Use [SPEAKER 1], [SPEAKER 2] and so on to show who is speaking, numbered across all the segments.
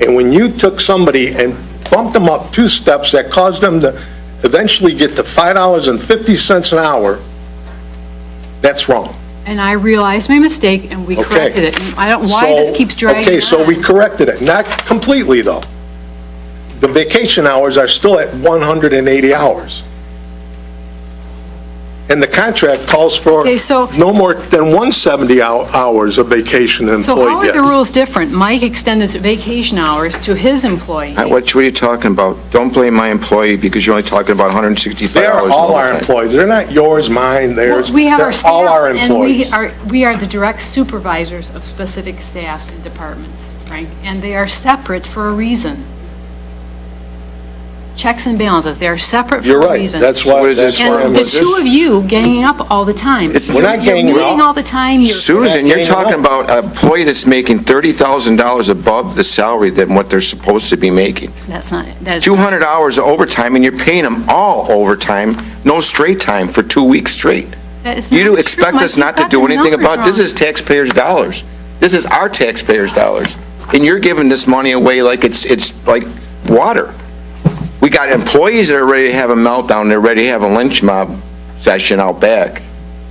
[SPEAKER 1] And when you took somebody and bumped them up two steps, that caused them to eventually get to $5.50 an hour, that's wrong.
[SPEAKER 2] And I realized my mistake, and we
[SPEAKER 1] Okay.
[SPEAKER 2] corrected it. And I don't, why this
[SPEAKER 1] So-
[SPEAKER 2] keeps dragging
[SPEAKER 1] Okay, so we
[SPEAKER 2] on.
[SPEAKER 1] corrected it, not completely, though. The vacation hours are still at 180 hours. And the contract calls for
[SPEAKER 2] Okay, so-
[SPEAKER 1] no more than 170 hou- hours of vacation an
[SPEAKER 2] So
[SPEAKER 1] employee
[SPEAKER 2] how are
[SPEAKER 1] gets.
[SPEAKER 2] the rules different? Mike extended his vacation hours to his employee.
[SPEAKER 3] Uh, What, what are you talking about? Don't blame my employee because you're only talking about $165.
[SPEAKER 1] They are
[SPEAKER 3] the
[SPEAKER 1] all
[SPEAKER 3] whole
[SPEAKER 1] our
[SPEAKER 3] thing.
[SPEAKER 1] employees, they're not yours, mine, theirs.
[SPEAKER 2] Well, We have
[SPEAKER 1] They're
[SPEAKER 2] our
[SPEAKER 1] all our
[SPEAKER 2] staffs, and we
[SPEAKER 1] employees.
[SPEAKER 2] are, we are the direct supervisors of specific staffs and departments, Frank, and they are separate for a reason. Checks and balances, they are separate for
[SPEAKER 1] You're
[SPEAKER 2] a
[SPEAKER 1] right,
[SPEAKER 2] reason.
[SPEAKER 1] that's why.
[SPEAKER 3] What is
[SPEAKER 1] that's
[SPEAKER 3] this for?
[SPEAKER 1] why I'm-
[SPEAKER 2] And the two of you ganging up all the time.
[SPEAKER 3] It's-
[SPEAKER 1] We're not ganging
[SPEAKER 2] You're meeting
[SPEAKER 1] up.
[SPEAKER 2] all the time, you're...
[SPEAKER 3] Susan, you're
[SPEAKER 1] Yeah,
[SPEAKER 3] talking
[SPEAKER 1] yeah.
[SPEAKER 3] about an employee that's making $30,000 above the salary than what they're supposed to be making.
[SPEAKER 2] That's not, it. that is...
[SPEAKER 3] 200 hours of overtime, and you're paying them all overtime, no straight time, for two weeks straight.
[SPEAKER 2] That is
[SPEAKER 3] You do
[SPEAKER 2] not
[SPEAKER 3] expect
[SPEAKER 2] true.
[SPEAKER 3] us
[SPEAKER 2] I
[SPEAKER 3] not to
[SPEAKER 2] got
[SPEAKER 3] do
[SPEAKER 2] the
[SPEAKER 3] anything
[SPEAKER 2] numbers
[SPEAKER 3] about, this
[SPEAKER 2] wrong.
[SPEAKER 3] is taxpayers' dollars. This is our taxpayers' dollars. And you're giving this money away like it's, it's like water. We got employees that are ready to have a meltdown, they're ready to have a lynch mob session out back.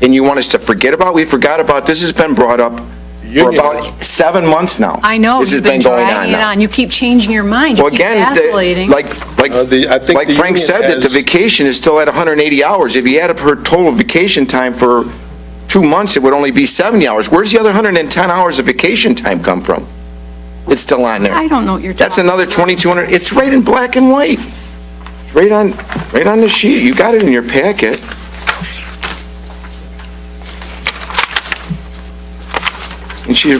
[SPEAKER 3] And you want us to forget about, we forgot about, this has been brought up for
[SPEAKER 1] Unionized.
[SPEAKER 3] about seven months now.
[SPEAKER 2] I know,
[SPEAKER 3] This has
[SPEAKER 2] you've been
[SPEAKER 3] going
[SPEAKER 2] dragging it
[SPEAKER 3] now.
[SPEAKER 2] on, you keep changing your mind, you
[SPEAKER 3] Well,
[SPEAKER 2] keep
[SPEAKER 3] again, the-
[SPEAKER 2] vacillating.
[SPEAKER 3] like, like,
[SPEAKER 1] Uh, the- I think
[SPEAKER 3] like
[SPEAKER 1] the
[SPEAKER 3] Frank
[SPEAKER 1] union
[SPEAKER 3] said, that the
[SPEAKER 1] has-
[SPEAKER 3] vacation is still at 180 hours. If you add up her total vacation time for two months, it would only be 70 hours. Where's the other 110 hours of vacation time come from? It's still on there.
[SPEAKER 2] I don't know what you're
[SPEAKER 3] That's
[SPEAKER 2] talking
[SPEAKER 3] another
[SPEAKER 2] about.
[SPEAKER 3] 2,200, it's right in black and white. It's right on, right on the sheet. You got it in your packet. And she,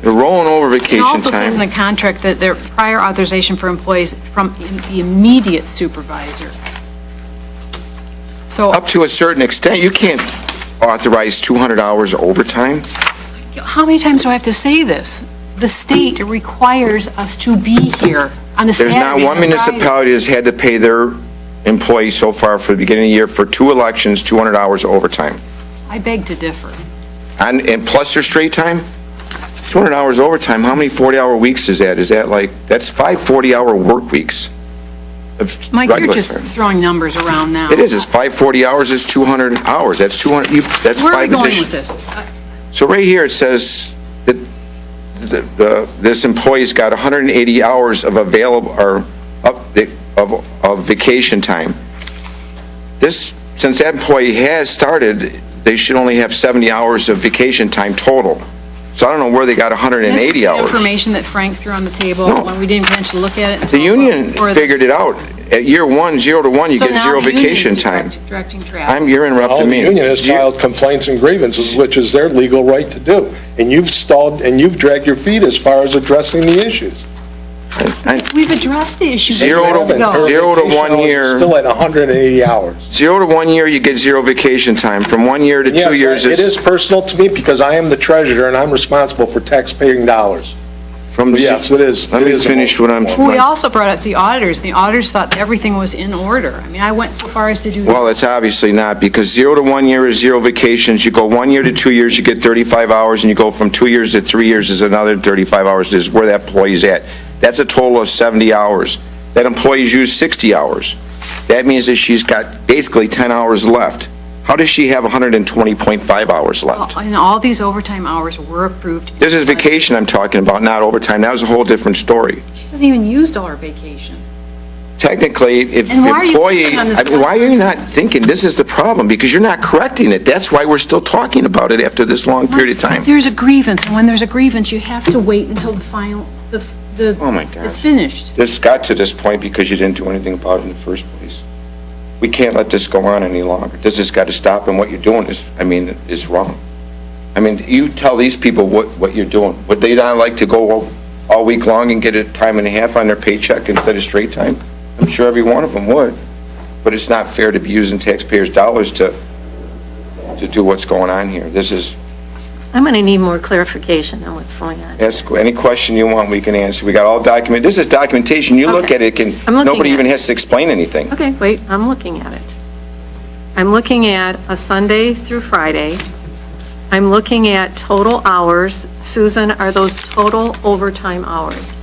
[SPEAKER 3] they're rolling over
[SPEAKER 2] It
[SPEAKER 3] vacation time.
[SPEAKER 2] also says in the contract that there prior authorization for employees from im- the immediate supervisor. So
[SPEAKER 3] up to a certain extent, you can't authorize 200 hours overtime.
[SPEAKER 2] how many times do I have to say this? The state requires us to be here on a
[SPEAKER 3] There's
[SPEAKER 2] Saturday
[SPEAKER 3] not one
[SPEAKER 2] and a Friday.
[SPEAKER 3] municipality that's had to pay their employees so far for the beginning of the year for two elections, 200 hours overtime.
[SPEAKER 2] I beg to differ.
[SPEAKER 3] And, and plus their straight time, 200 hours overtime, how many 40-hour weeks is that? Is that like, that's five 40-hour work weeks. of
[SPEAKER 2] Mike, you're
[SPEAKER 3] regular
[SPEAKER 2] just
[SPEAKER 3] time.
[SPEAKER 2] throwing numbers around now.
[SPEAKER 3] It is, it's five 40 hours, it's 200 hours, that's 200, you, that's
[SPEAKER 2] Where are we
[SPEAKER 3] five
[SPEAKER 2] going
[SPEAKER 3] addition-
[SPEAKER 2] with this? Uh,
[SPEAKER 3] So right here, it says that the- the- this employee's got 180 hours of available, or up- of of vacation time. This, since that employee has started, they should only have 70 hours of vacation time total. So I don't know where they got
[SPEAKER 2] this is
[SPEAKER 3] 180
[SPEAKER 2] the
[SPEAKER 3] hours.
[SPEAKER 2] Information that Frank threw on the table
[SPEAKER 3] No.
[SPEAKER 2] when we didn't get a chance to look at it.
[SPEAKER 3] The union figured it out. At year one, zero to one, you get zero vacation time.
[SPEAKER 2] Directing traffic.
[SPEAKER 3] I'm, you're
[SPEAKER 1] All
[SPEAKER 3] interrupting
[SPEAKER 1] the
[SPEAKER 3] me.
[SPEAKER 1] union has
[SPEAKER 3] Do you-
[SPEAKER 1] filed complaints and grievances, which is their legal right to do. And you've stalled, and you've dragged your feet as far as addressing the issues.
[SPEAKER 3] I-
[SPEAKER 2] We've addressed the issue
[SPEAKER 3] Zero
[SPEAKER 2] years
[SPEAKER 3] to-
[SPEAKER 2] ago.
[SPEAKER 3] zero to one
[SPEAKER 1] Vacation hours is
[SPEAKER 3] year.
[SPEAKER 1] Still at 180 hours.
[SPEAKER 3] Zero to one year, you get zero vacation time. From one year to two
[SPEAKER 1] Yes,
[SPEAKER 3] years,
[SPEAKER 1] I- it
[SPEAKER 3] it's
[SPEAKER 1] is personal to me because I am the treasurer and I'm responsible for taxpaying dollars.
[SPEAKER 3] From,
[SPEAKER 1] Yes, it is.
[SPEAKER 3] Let
[SPEAKER 1] It
[SPEAKER 3] me
[SPEAKER 1] is.
[SPEAKER 3] finish what I'm.
[SPEAKER 2] Well, We also brought up the auditors, and the auditors thought that everything was in order. I mean, I went so far as to do,
[SPEAKER 3] Well, it's obviously not, because zero to one year is zero vacations. You go one year to two years, you get 35 hours, and you go from two years to three years is another 35 hours, This is where that employee's at. That's a total of 70 hours. That employee's used 60 hours. That means that she's got basically 10 hours left. How does she have 120.5 hours left?
[SPEAKER 2] and all these overtime hours were approved.
[SPEAKER 3] This is vacation I'm talking about, not overtime. That was a whole different story.
[SPEAKER 2] She hasn't even used all her vacation.
[SPEAKER 3] technically, if
[SPEAKER 2] And why are you
[SPEAKER 3] employee,
[SPEAKER 2] thinking on this
[SPEAKER 3] I mean, why are you not thinking, this is the problem? Because you're not correcting it. That's why we're still talking about it after this long period of time.
[SPEAKER 2] There's a grievance, and when there's a grievance, you have to wait until the final, the, the...
[SPEAKER 3] Oh, my gosh.
[SPEAKER 2] It's finished.
[SPEAKER 3] This got to this point because you didn't do anything about it in the first place. We can't let this go on any longer. This has got to stop, and what you're doing is, I mean, is wrong. I mean, you tell these people what, what you're doing. Would they not like to go all- all week long and get a time and a half on their paycheck instead of straight time? I'm sure every one of them would, but it's not fair to be using taxpayers' dollars to, to do what's going on here. This is,
[SPEAKER 4] I'm going to need more clarification on what's going on.
[SPEAKER 3] ask any question you want, we can answer. We got all document, this is documentation. You look
[SPEAKER 4] Okay.
[SPEAKER 3] at it, can,
[SPEAKER 4] I'm looking
[SPEAKER 3] nobody
[SPEAKER 4] at
[SPEAKER 3] even
[SPEAKER 4] it.
[SPEAKER 3] has to explain anything.
[SPEAKER 4] Okay, wait, I'm looking at it. I'm looking at a Sunday through Friday. I'm looking at total hours. Susan, are those total overtime hours?